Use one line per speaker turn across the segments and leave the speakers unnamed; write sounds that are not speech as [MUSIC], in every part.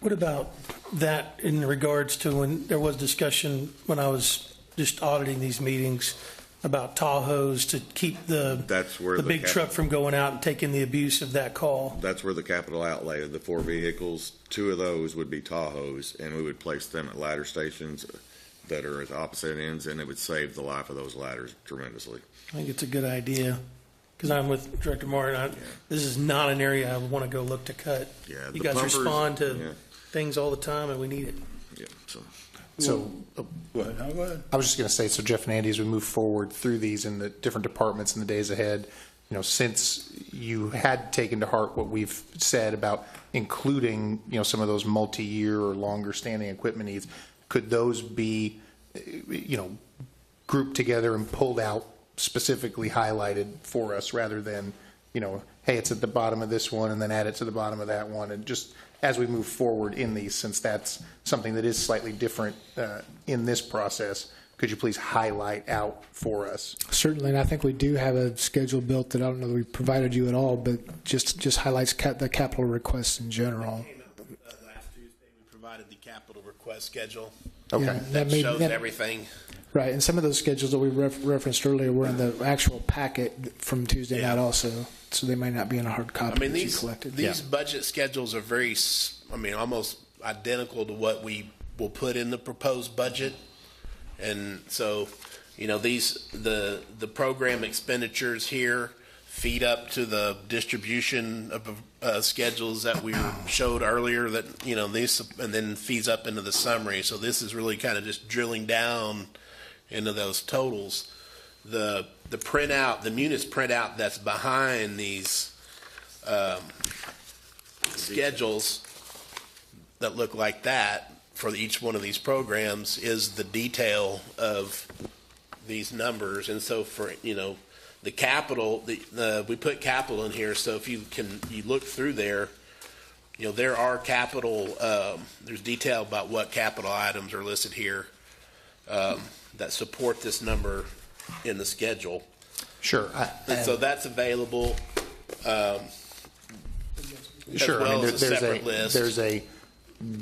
What about that in regards to when there was discussion when I was just auditing these meetings about Tahoes to keep the
That's where
the
the
big
cap-
truck from going out and taking the abuse of that call.
That's where the capital outlay of the four vehicles, two of those would be Tahoes, and we would place them at ladder stations that are at opposite ends, and it would save the life of those ladders tremendously.
I think it's a good idea because I'm with Director Martin. I, This is not an area I want to go look to cut.
Yeah,
you
the
guys
pumpers-
respond to
yeah.
things all the time, and we need it.
Yeah, so
So
What? Now, what?
I was just going to say, so Jeff and Andy, as we move forward through these in the different departments in the days ahead, you know, since you had taken to heart what we've said about including, you know, some of those multi-year or longer standing equipment needs, could those be, eh, you know, grouped together and pulled out specifically highlighted for us rather than, you know, hey, it's at the bottom of this one and then add it to the bottom of that one and just as we move forward in these, since that's something that is slightly different uh, in this process, could you please highlight out for us?
Certainly, and I think we do have a schedule built that I don't know that we provided you at all, but just, just highlights cap, the capital requests in general.
Came out, uh, Last Tuesday, we provided the capital request schedule.
Okay.
Yeah, that may-
Shows
that-
everything.
Right, and some of those schedules that we ref- referenced earlier were in the actual packet from Tuesday
Yeah.
night also, so they might not be in a hard
I
copy
mean,
that you
these,
collected.
these budget schedules are very, s- I mean, almost identical to what we will put in the proposed budget. And so, you know, these, the, the program expenditures here feed up to the distribution of, uh, schedules that we showed earlier that, you know, these, and then feeds up into the summary. So this is really kind of just drilling down into those totals. The, the printout, the munis printout that's behind these, schedules that look like that for each one of these programs is the detail of these numbers. And so for, you know, the capital, the, the, we put capital in here, so if you can, you look through there, you know, there are capital, um, there's detail about what capital items are listed here, um, that support this number in the schedule.
Sure. I-
And so that's available, as
Sure. I mean,
well
there-
as a
there's
separate list.
There's a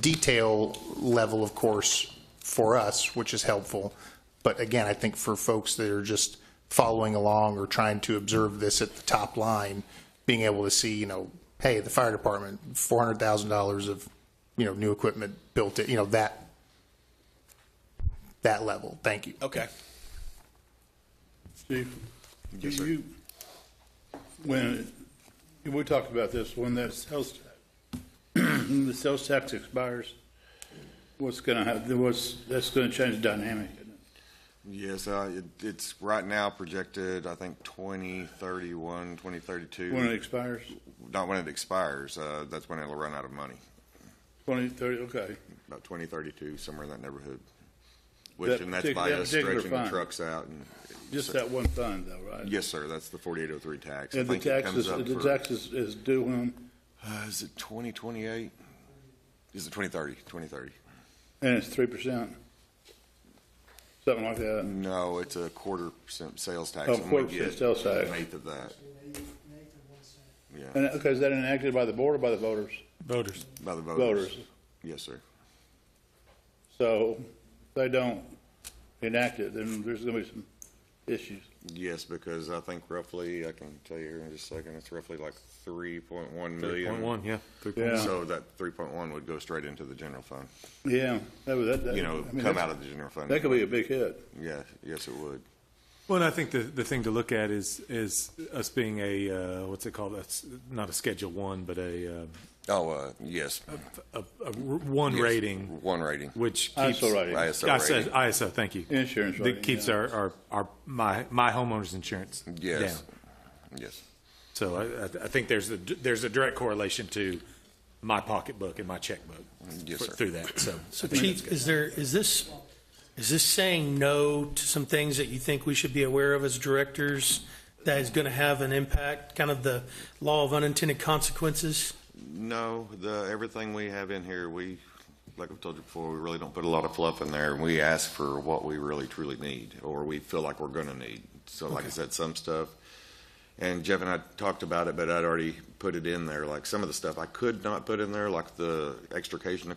detail level, of course, for us, which is helpful. But again, I think for folks that are just following along or trying to observe this at the top line, being able to see, you know, hey, the fire department, four hundred thousand dollars of, you know, new equipment built, it, you know, that, that level. Thank you.
okay.
Chief, do you, when, we talked about this, when that sales, tax- [CLEARS THROAT] when the sales tax expires, what's gonna happen, what's, that's gonna change the dynamic. isn't it?
Yes, uh, it- it's right now projected, I think, 2031,
When it
2032,
expires,
not when it expires, uh, that's when it'll run out of money,
twenty, thirty, okay.
about 2032, somewhere in that neighborhood. Which,
That
and that's
partic-
by
that
us
particular
stretching the
fund.
trucks out and.
Just that one fund though, right?
Yes, sir, that's the 4803 tax. I
And the
think it comes
taxes,
up
the
for-
taxes is due when,
Uh, is it 2028? Is it 2030? 2030.
and it's three percent. Something like that.
No, it's a quarter percent sales tax.
Oh,
I'm gonna
quarter percent
get
sales tax.
An eighth of that. Yeah,
And, okay, is that enacted by the board or by the voters?
Voters.
by the voters.
Voters.
Yes, sir.
So if they don't enact it, then there's gonna be some issues.
Yes, because I think roughly, I can tell you here in just a second, it's roughly like 3.1
Three point
million.
one, yeah. Three point
Yeah,
So that 3.1 would go straight into the general fund,
yeah. That would- that- that-
you know,
I mean,
come
that's-
out of the general fund.
That could be a big hit.
Yeah, yes, it would.
Well, and I think the, the thing to look at is, is us being a, uh, what's it called? That's not a schedule one, but a, uh,
Oh, uh, yes.
a, a r- one
Yes,
rating,
One rating.
which keeps.
ISO rating.
ISO
ISO,
rating.
ISO, thank you.
Insurance rating,
That keeps
yeah.
our, our, our, my, my homeowner's insurance down.
Yes. Yes.
So I, I- I think there's a, there's a direct correlation to my pocketbook and my checkbook.
Yes,
for-
sir.
Through that, so.
So, Chief, is there is this is this saying no to some things that you think we should be aware of as directors that is going to have an impact? Kind of the law of unintended consequences.
No, the, everything we have in here, we, like I've told you before, we really don't put a lot of fluff in there. We ask for what we really truly need, or we feel like we're gonna need. So like I said, some stuff, and Jeff and I talked about it, but I'd already put it in there, like some of the stuff I could not put in there, like the extrication